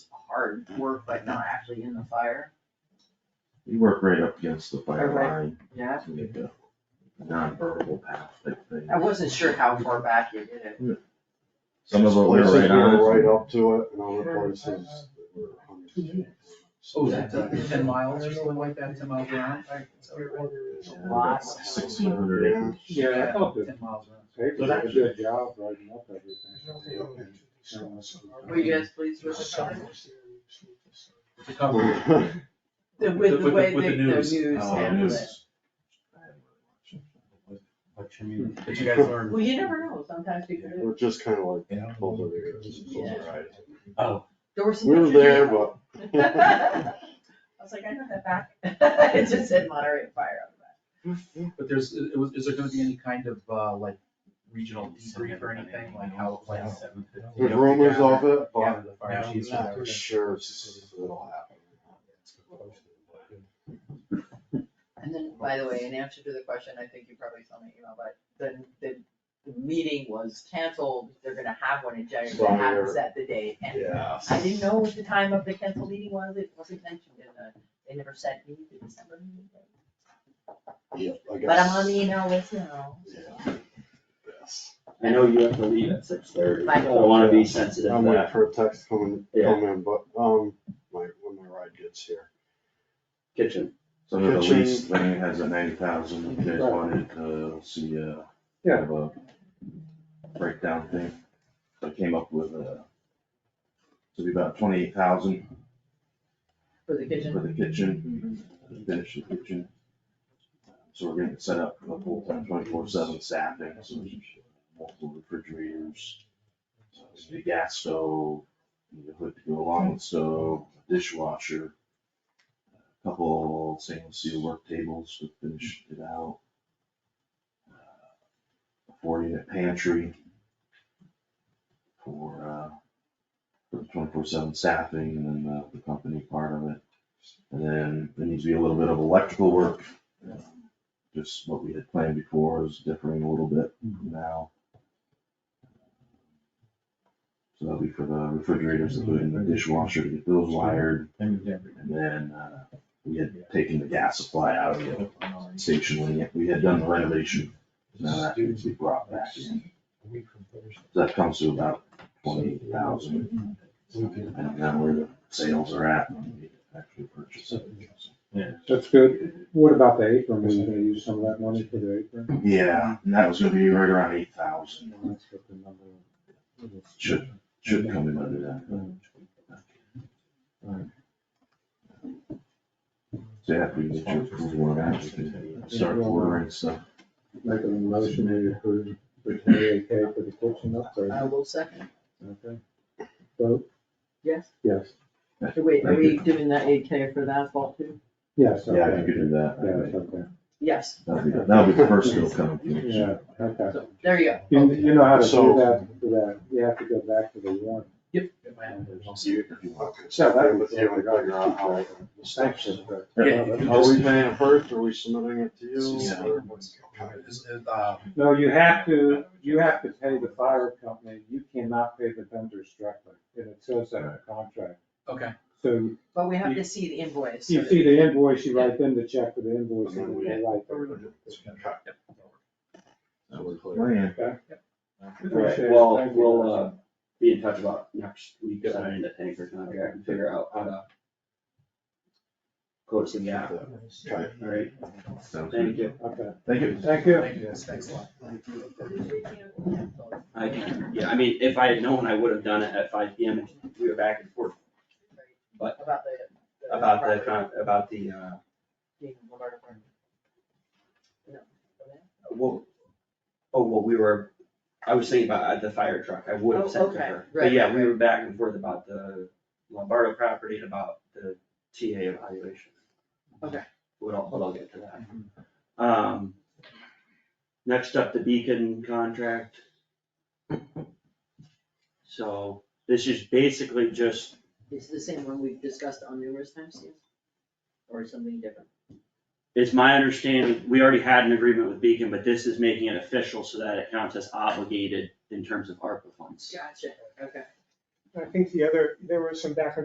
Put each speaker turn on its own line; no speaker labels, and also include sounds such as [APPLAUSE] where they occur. hard work, but not actually in the fire,
You work right up against the fire
Okay.
line,
yeah.
to make a non-verbal path type thing.
I wasn't sure how far back you did it.
Some of it we're
Places
right
we
on.
were
it.
Right up to it, and other places that were hundreds of feet.
Oh, is that
Yeah.
ten- ten miles or something like that, ten miles around?
Lots.
Sixteen hundred acres.
Yeah, I thought ten miles around.
They did a good job writing up everything.
Were you guys pleased with the cover?
The cover.
The,
With-
with the
with the-
way
with
the,
the
the
news.
news
Oh,
handled it.
news.
What you mean?
Did you guys learn?
Well, you never know, sometimes people, do.
[LAUGHS] We're just kinda like
Yeah.
pulled over here.
there were some.
We were there, but.
pictures in I was like, [LAUGHS] I know that back, [LAUGHS] it just said Monterey Fire on the back.
But there's, it was, is there gonna be any kind of, uh, like, regional debrief or anything, like how, like. you
There's
know,
rumors of it,
gather
but
the fire chiefs or
not
whatever.
sure it's- it'll happen.
And then, by the way, in answer to the question, I think you probably saw my email, but the, the, the meeting was canceled, they're gonna have one in January, they haven't
Sorry.
set the date, and
Yeah.
I didn't know what the time of the canceled meeting was, it wasn't mentioned in the, they never said me the December meeting.
Yeah, I guess.
But I'm on the email list now.
Yeah. Yes.
I know you have to leave at six thirty, I
Michael.
don't wanna be sensitive
I'm
to
waiting
that.
for a text coming,
Yeah.
come in, but, um, my, when my ride gets here.
Kitchen,
So the
Kitchen.
lease thing has a ninety thousand, you guys
Right.
wanted to uh, see a.
Yeah.
Kind of a breakdown thing, so I came up with a. To be about twenty-eight thousand
For the
for
kitchen,
the kitchen, finish the kitchen. So we're gonna set up a full-time twenty-four seven staffing, so there's multiple refrigerators. there's a Gas stove, the hood to go along with the stove, dishwasher. a Couple stainless steel work tables to finish it out. Uh, A Four unit pantry. For uh, for twenty-four seven staffing and then the- the company part of it. And then there needs to be a little bit of electrical work. Just what we had planned before is differing a little bit now. So that'll be for the refrigerators, including the dishwasher, to get those wired. And then, uh, we had taken the gas supply out of the station when we had done the renovation. Now that needs to be brought back in. So that comes to about twenty-eight thousand. I don't know where the sales are at when we actually purchase it.
That's good. What about the apron? Were you gonna use some of that money for the apron?
Yeah, and that was gonna be right around eight thousand,
That's what the number was.
should, should come in under that. So yeah, if we get your approval on that, we can start ordering stuff.
Make a motion to approve the twenty-eight K for the kitchen upgrade.
I will second,
Okay. Vote,
yes,
yes,
wait, are
Thank
we
you.
doing that eight K for the asphalt too?
yes,
Yeah, if you
okay.
could do
Yeah,
that.
okay.
Yes,
That'll be, that'll be the first bill coming through.
Yeah, okay.
so, there you go,
You, you know how to do
So-
that, for that. You have to go back to the warrant.
Yep. it might happen.
Yeah, that was-
Yeah, we gotta figure out how the steps is, but
Yeah, you
Are we
can
paying it first, or are we submitting it to you?
Yeah.
or-
just, is- is, um,
No, you have to, you have to pay the fire company. You cannot pay the vendors directly. And it says that in the contract.
okay,
So
but we have to see the invoice.
You see the invoice, you write them the check for the invoice,
Yeah.
and they write the.
That was the plan.
Appreciate it.
well,
Thank you.
we'll, uh, be in touch about next week, signing the tanker contract, and figure out how to close the gap,
Okay.
alright,
Sounds
thank
good.
you,
Okay,
Thank you.
thank you.
thank you, guys, thanks a lot.
I can, yeah, I mean, if I had known, I would have done it at five P M, and we were back and forth But-
About the.
about the,
property.
con- about the, uh,
being Lombardo Farm. No, okay.
well, oh, well, we were, I was thinking about uh, the fire truck, I would
Oh,
have sent to
okay,
her,
right,
but yeah, we
right.
were back and forth about the Lombardo property and about the TA evaluation.
Okay. Mm-hmm.
We'll, all- we'll all get to that. Um, next up, the Beacon contract. So this is basically just,
It's the same one we've discussed on numerous times, yes? Or something different?
it's my understanding, we already had an agreement with Beacon, but this is making it official so that it counts as obligated in terms of ARPA funds.
Gotcha, okay.
I think the other, there was some back and